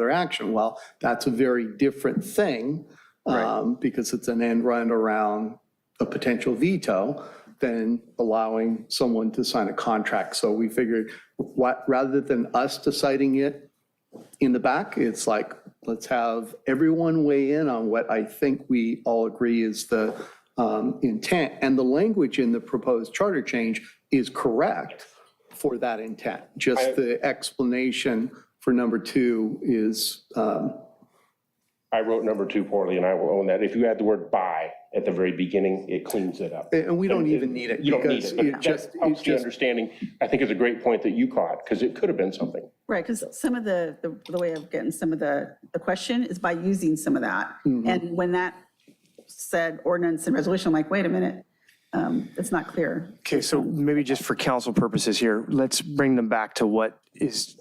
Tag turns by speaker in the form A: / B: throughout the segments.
A: their action. Well, that's a very different thing um, because it's an end run around a potential veto than allowing someone to sign a contract. So we figured, what, rather than us deciding it in the back, it's like, let's have everyone weigh in on what I think we all agree is the um, intent. And the language in the proposed charter change is correct for that intent. Just the explanation for number two is, um,
B: I wrote number two poorly, and I will own that. If you add the word by at the very beginning, it cleans it up.
A: and we don't even need it
B: You don't need
A: because
B: it,
A: it
B: but that
A: just,
B: helps
A: it
B: the
A: just
B: understanding, I think is a great point that you caught, because it could have been something.
C: Right, because some of the, the- the way of getting some of the, the question is by using some of that.
D: Mm-hmm.
C: And when that said ordinance and resolution, I'm like, wait a minute, um, it's not clear.
E: Okay, so maybe just for council purposes here, let's bring them back to what is,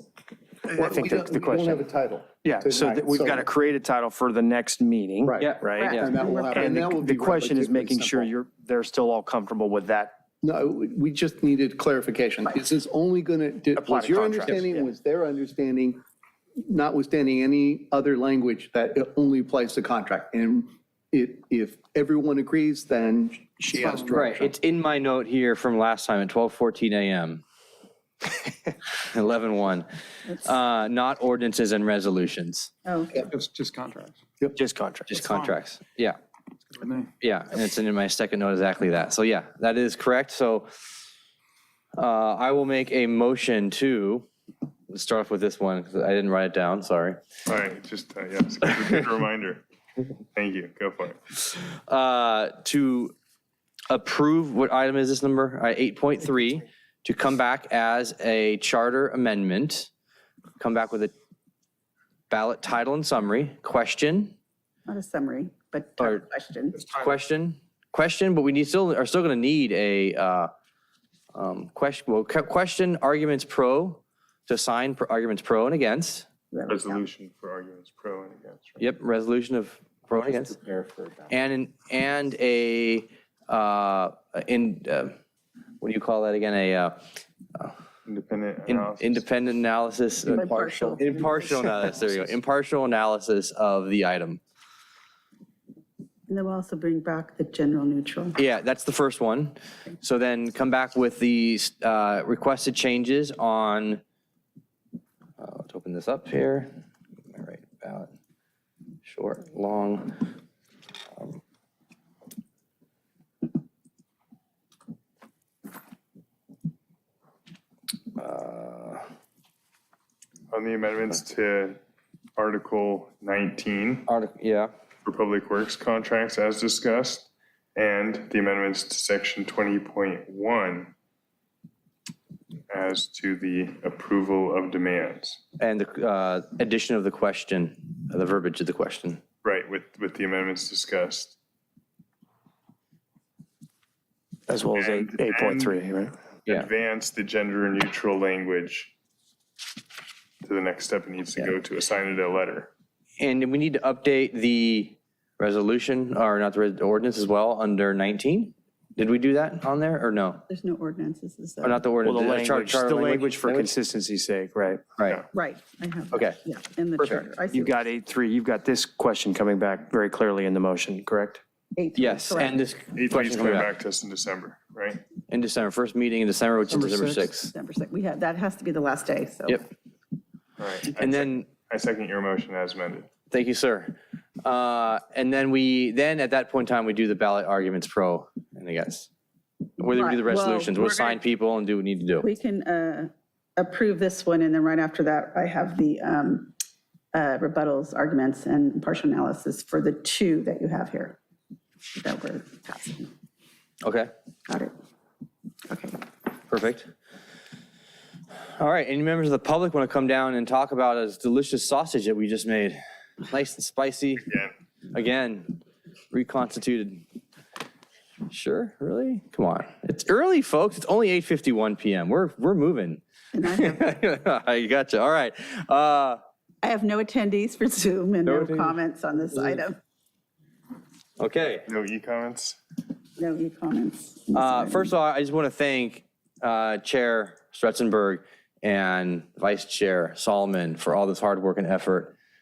E: I
A: We
E: think the-
A: don't-
E: the
A: We don't have
E: question.
A: a title.
E: Yeah, so that
A: tonight,
E: we've got to create a title for the next meeting.
A: Right. Yeah.
E: Right?
A: And that will happen.
E: And
A: that will
E: the-
A: be
E: the question is
A: relatively
E: making sure
A: simple.
E: you're, they're still all comfortable with that.
A: No, we- we just needed clarification. Is this only going to,
E: Apply
A: was
E: to
A: your
E: contracts,
A: understanding, was their understanding, notwithstanding any other language, that it only applies to contract? And it, if everyone agrees, then she has
D: Right,
A: direction.
D: it's in my note here from last time at 12:14 a.m. 11:1, Uh, not ordinances and resolutions,
C: Oh,
F: It's just contracts.
E: Just contract.
D: just contracts. Yeah,
F: with me.
D: yeah, and it's in my second note exactly that. So yeah, that is correct. So uh, I will make a motion to, let's start off with this one, because I didn't write it down, sorry.
G: All right, just, uh, yeah, it's a good- good reminder. Thank you, go for it.
D: uh, to approve, what item is this number? Uh, 8.3, to come back as a charter amendment, come back with a ballot title and summary, question,
C: not a summary, but
D: Or-
C: a question.
D: question, question, but we need, still, are still going to need a uh, um, question, well, que- question, arguments pro, to sign pro- arguments pro and against.
C: whoever counts.
G: Resolution for arguments pro and against. right?
D: Yep, resolution of pro and against. And, an- and a, uh, in, uh, what do you call that again? A uh,
G: Independent
D: in-
G: analysis.
D: independent analysis. uh,
C: Impartial.
D: Impartial analysis, there you go. Impartial analysis of the item.
C: And then we'll also bring back the general neutral.
D: Yeah, that's the first one. So then come back with the uh, requested changes on, uh, let's open this up here. All right, ballot, short, long. Um, uh,
G: On the amendments to Article 19
D: Article, yeah,
G: for Public Works contracts as discussed, and the amendments to Section 20.1 as to the approval of demands.
D: and the uh, addition of the question, the verbiage of the question.
G: Right, with, with the amendments discussed.
E: As well as eight-
G: And-
E: 8.3, right?
D: Yeah.
G: advance the gender neutral language to the next step it needs to go to, assign it a letter.
D: And we need to update the resolution, or not the res- ordinance as well, under 19? Did we do that on there, or no?
C: There's no ordinances, is
D: Or
C: there?
D: Oh, not the ordinance?
E: Well, the
D: charter-
E: language,
D: charter
E: the language for consistency's sake, right?
D: Right,
C: Right, I have.
D: Okay.
C: Yeah, in the charter. I see
E: You've got 8.3, you've got this question coming back very clearly in the motion, correct?
C: eight, three,
D: yes,
C: correct.
D: and this
G: Eight needs
D: question
G: to come
D: coming back
G: back to us in December, right?
D: in December, first meeting in December, which is December 6th.
C: December 6th. We have, that has to be the last day, so.
D: Yep,
G: All right. I
D: and
G: sec-
D: then,
G: I second your motion as amended.
D: thank you, sir. Uh, And then we, then at that point in time, we do the ballot arguments pro and against. Whether we do the
C: Right, well,
D: resolutions, we'll
C: we're gonna-
D: assign people and do what we need to do.
C: We can uh, approve this one, and then right after that, I have the um, uh, rebuttals, arguments, and partial analysis for the two that you have here that we're passing.
D: Okay,
C: Got it? Okay.
D: perfect. All right, any members of the public want to come down and talk about this delicious sausage that we just made? Nice and spicy.
G: Yeah.
D: again, reconstituted. Sure, really? Come on, it's early, folks. It's only 8:51 p.m. We're we're moving.
C: And I have,
D: I gotcha. All right. Uh,
C: I have no attendees for Zoom and no
D: attendees.
C: comments on this item.
D: okay.
G: No e-comments?
C: No new comments.
D: Uh, first of all, I just want to thank uh, Chair Stretzenberg and Vice Chair Solomon for all this hard work and effort.